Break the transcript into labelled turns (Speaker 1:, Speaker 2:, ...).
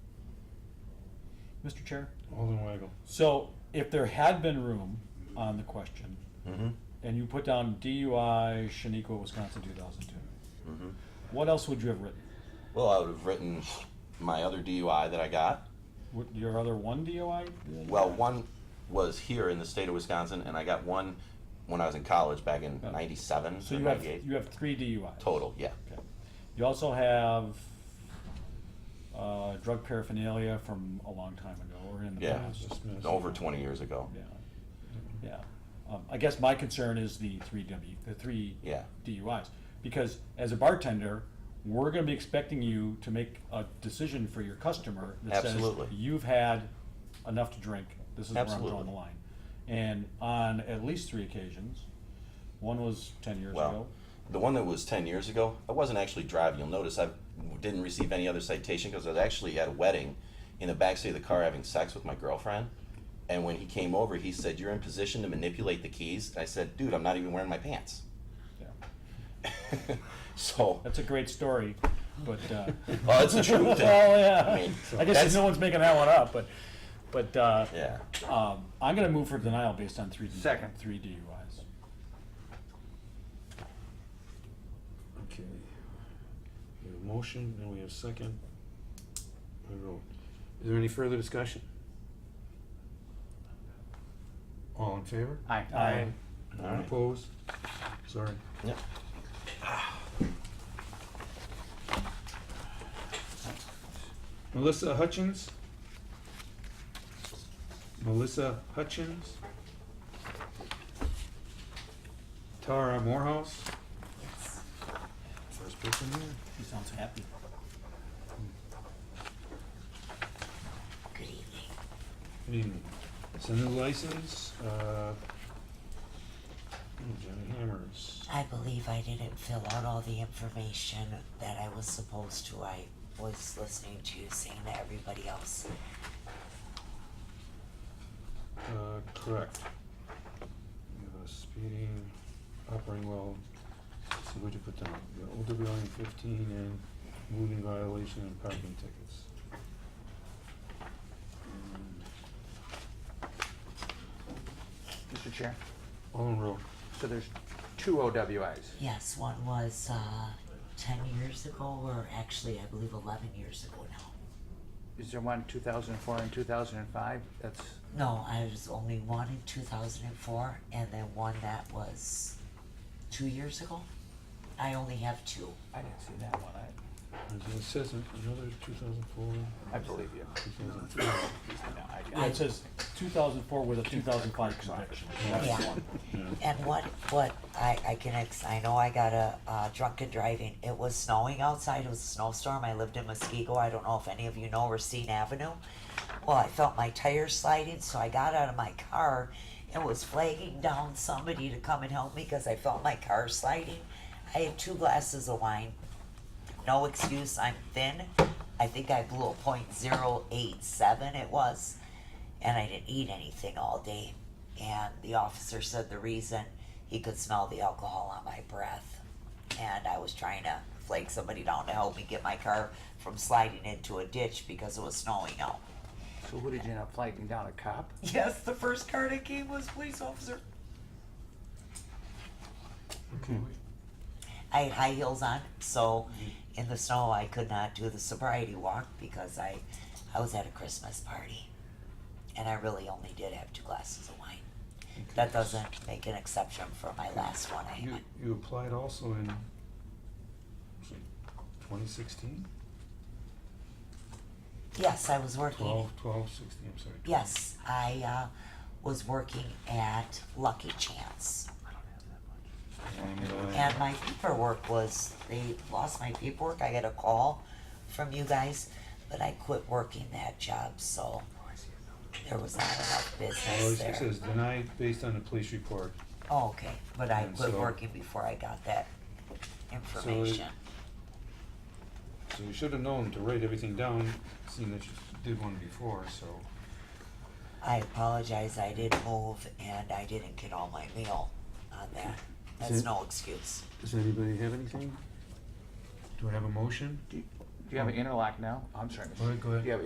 Speaker 1: Mr. Chair?
Speaker 2: Alden Weigel.
Speaker 1: So if there had been room on the question,
Speaker 3: Mm-hmm,
Speaker 1: and you put down DUI, Shaniqua, Wisconsin, two thousand two,
Speaker 3: mm-hmm.
Speaker 1: what else would you have written?
Speaker 3: Well, I would have written my other DUI that I got.
Speaker 1: Would your other one DUI?
Speaker 3: Well, one was here in the state of Wisconsin, and I got one when I was in college back in
Speaker 1: Oh.
Speaker 3: '97
Speaker 1: So
Speaker 3: or
Speaker 1: you have,
Speaker 3: '98
Speaker 1: you have three DUIs.
Speaker 3: total. Yeah.
Speaker 1: Okay. You also have, uh, drug paraphernalia from a long time ago, or in the
Speaker 3: Yeah.
Speaker 1: past.
Speaker 3: over 20 years ago.
Speaker 1: Yeah, yeah. Um, I guess my concern is the three W, the three
Speaker 3: Yeah.
Speaker 1: DUIs. Because as a bartender, we're gonna be expecting you to make a decision for your customer that says,
Speaker 3: Absolutely.
Speaker 1: you've had enough to drink, this is where I'm drawing the
Speaker 3: Absolutely.
Speaker 1: line. And on at least three occasions, one was ten years
Speaker 3: Well,
Speaker 1: ago.
Speaker 3: the one that was 10 years ago, I wasn't actually driving. You'll notice I didn't receive any other citation because I was actually at a wedding in the backseat of the car having sex with my girlfriend. And when he came over, he said, You're in position to manipulate the keys. And I said, Dude, I'm not even wearing my pants.
Speaker 1: Yeah.
Speaker 3: So,
Speaker 1: That's a great story, but, uh.
Speaker 3: oh, it's the truth.
Speaker 1: Well,
Speaker 3: I
Speaker 1: yeah.
Speaker 3: mean,
Speaker 1: I guess
Speaker 3: that's-
Speaker 1: no one's making that one up, but, but, uh,
Speaker 3: Yeah.
Speaker 1: Um, I'm gonna move for denial based on three. D-
Speaker 4: Second.
Speaker 1: Three DUIs.
Speaker 2: Okay. We have a motion and we have second. I vote. Is there any further discussion? All in favor?
Speaker 4: Aye.
Speaker 1: Aye.
Speaker 2: None opposed? Sorry.
Speaker 3: Yep.
Speaker 2: Melissa Hutchins? Melissa Hutchins? Tara Morehouse? First person there.
Speaker 1: He sounds happy.
Speaker 2: Good evening. It's a new license, uh, hmm, Johnny Hammers.
Speaker 5: I believe I didn't fill out all the information that I was supposed to. I was listening to you saying that everybody else.
Speaker 2: Uh, correct. We have a speeding, operating well, let's see what you put down, the OWI in fifteen and moving violation and parking tickets. And
Speaker 4: Mr. Chair,
Speaker 2: All in row,
Speaker 4: so there's two OWIs.
Speaker 5: Yes, one was uh, 10 years ago, or actually, I believe 11 years ago now.
Speaker 4: Is there one 2004 and 2005? That's,
Speaker 5: No, I was only one in 2004, and then one that was two years ago. I only have two.
Speaker 4: I didn't see that one. I,
Speaker 2: There's- it says an- another two thousand four,
Speaker 4: I believe you.
Speaker 2: two thousand three.
Speaker 4: No, I
Speaker 1: Yeah, it
Speaker 4: didn't.
Speaker 1: says two thousand four with a two thousand five conviction. That's the
Speaker 5: Yeah.
Speaker 1: one.
Speaker 5: And what, what, I, I can, ex- I know I got a, uh, drunken driving, it was snowing outside, it was a snowstorm, I lived in Muskego, I don't know if any of you know Racine Avenue. Well, I felt my tires sliding, so I got out of my car and was flagging down somebody to come and help me, cause I felt my car sliding. I had two glasses of wine, no excuse, I'm thin, I think I blew a point zero eight seven it was and I didn't eat anything all day. And the officer said the reason he could smell the alcohol on my breath. And I was trying to flake somebody down to help me get my car from sliding into a ditch because it was snowing out.
Speaker 4: So who did you end up flagging down? A cop?
Speaker 5: Yes, the first car that came was police officer.
Speaker 2: Okay,
Speaker 5: I had high heels on, so in the snow I could not do the sobriety walk because I, I was at a Christmas party, and I really only did have two glasses of wine. That doesn't make an exception for my last one. I
Speaker 2: you,
Speaker 5: had.
Speaker 2: you applied also in twenty sixteen?
Speaker 5: Yes, I was working.
Speaker 2: Twelve, twelve, sixteen, I'm sorry. 12.
Speaker 5: Yes, I uh, was working at Lucky Chance,
Speaker 2: And, uh,
Speaker 5: and my paperwork was they lost my paperwork. I got a call from you guys, but I quit working that job, so there was not enough
Speaker 2: Well,
Speaker 5: business
Speaker 2: it
Speaker 5: there.
Speaker 2: Oh, says denied based on the police report.
Speaker 5: Oh, okay, but I
Speaker 2: And
Speaker 5: quit
Speaker 2: so-
Speaker 5: working before I got that information.
Speaker 2: So you should have known to write everything down, seeing that you did one before, so.
Speaker 5: I apologize. I didn't move, and I didn't get all my meal on that. That's
Speaker 2: it-
Speaker 5: no excuse.
Speaker 2: Does anybody have anything? Do I have a motion?
Speaker 4: Do you have an interlock now? I'm sorry. Mr.
Speaker 2: All right, go ahead.
Speaker 4: Do you have